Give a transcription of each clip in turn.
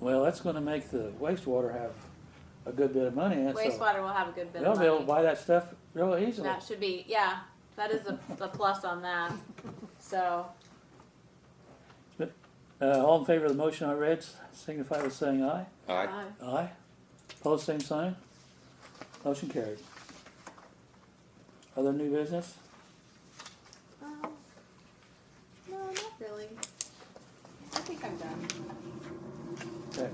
Well, that's gonna make the wastewater have a good bit of money in it, so Wastewater will have a good bit they'll of be able to money. buy that stuff real easily. That should be, yeah, that is a, a plus on that. So, Uh, all in favor of the motion I read, signify by saying aye. Aye. uh, Aye. Pose same sign. Motion carried. Other new business? um, no, not really. I think I'm done. Okay.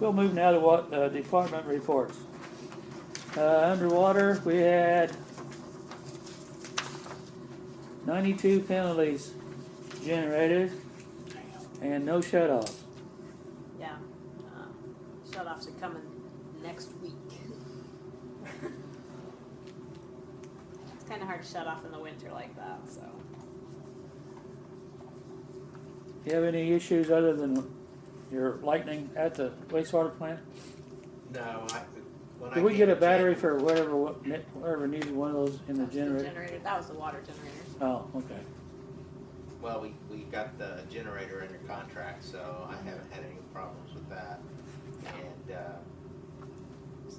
We'll move now to what, uh, department reports. Uh, underwater, we had ninety-two penalties generated and no shut-offs. Yeah, uh, shut offs are coming next week. It's kinda hard to shut off in the winter like that, so. Do you have any issues other than your lightning at the wastewater plant? No, I, when I. Did we came get a to battery check- for whatever, wa- ne- whatever needed one of those in the That's generator? That was the water generator. Oh, okay. Well, we, we got the generator under contract, so I haven't had any problems with that. And, uh,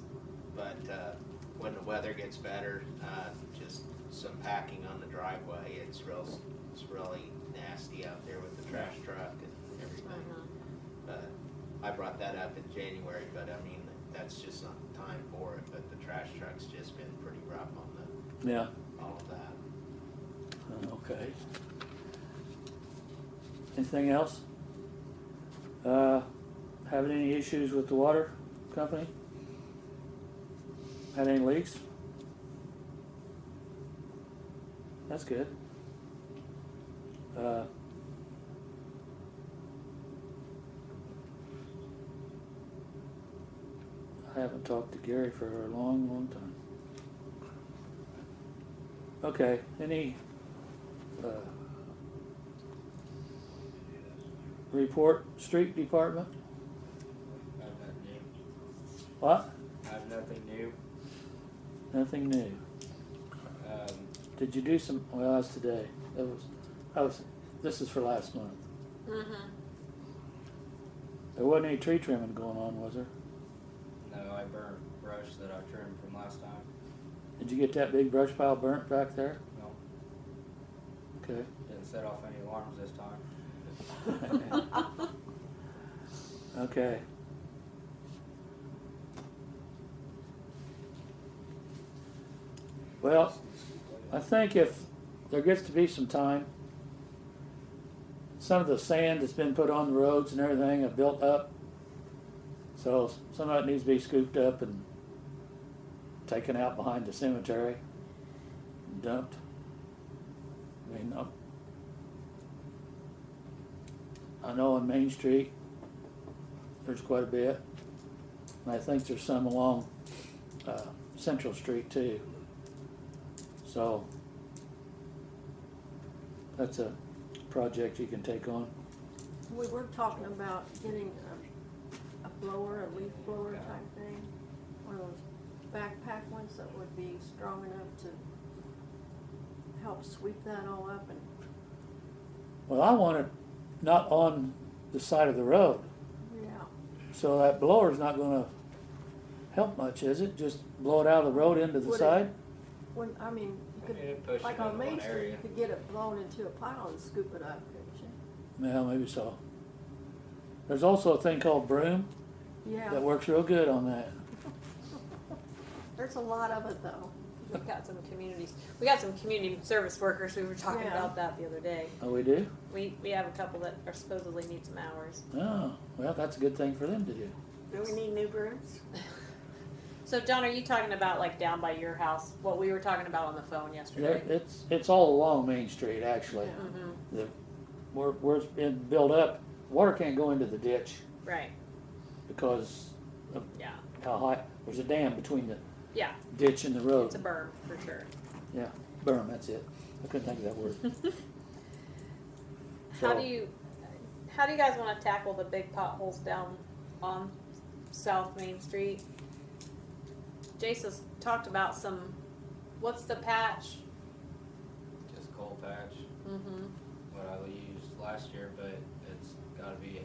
but, uh, when the weather gets better, uh, just some packing on the driveway, it's real, it's really nasty out there with the trash truck and everything. Uh-huh. But I brought that up in January, but I mean, that's just not the time for it, but the trash truck's just been pretty rough on the, Yeah, all of that. uh, okay. Anything else? Uh, having any issues with the water company? Had any leaks? That's good. Uh, I haven't talked to Gary for a long, long time. Okay, any, uh, report, street department? I've nothing new. What? I've nothing new. Nothing new. Um, Did you do some, well, that's today. That was, I was, this is for last month. Mm-hmm. There wasn't any tree trimming going on, was there? no, I burned brush that I trimmed from last time. Did you get that big brush pile burnt back there? No, Okay. didn't set off any alarms this time. Mm-hmm. Okay. Well, I think if there gets to be some time, some of the sand that's been put on the roads and everything have built up. So some of it needs to be scooped up and taken out behind the cemetery, dumped. I mean, I'm- I know on Main Street, there's quite a bit. And I think there's some along uh, Central Street too. So that's a project you can take on. We were talking about getting a, a blower, a leaf blower type thing, one of those backpack ones that would be strong enough to help sweep that all up and, Well, I want it not on the side of the road, yeah. so that blower's not gonna help much, is it? Just blow it out of the road into the Would it- side? When, I mean, you could, It'd push it like on into one Main Street, area. you could get it blown into a pile and scoop it up, couldn't Yeah, maybe so. There's also a thing called broom you? that Yeah, works real good on that. there's a lot of it though. We've got some communities, we got some community service workers, we were talking Yeah. about that the other day. Oh, we do? We, we have a couple that are supposedly need some hours. Oh, well, that's a good thing for them to do. Do we need new brooms? So John, are you talking about like down by your house, what we were talking about on the phone There, yesterday? it's, it's all along Main Street, actually. Yeah. Mm-hmm, The, where, where it's been built up, water can't go into the ditch right, because yeah, how high, there's a dam between the yeah, ditch and the road. it's a berm for sure. Yeah, berm, that's it. I couldn't think of that word. How So- do you, how do you guys wanna tackle the big potholes down on South Main Street? Jason's talked about some, what's the patch? Just coal patch, Mm-hmm. what I used last year, but it's gotta be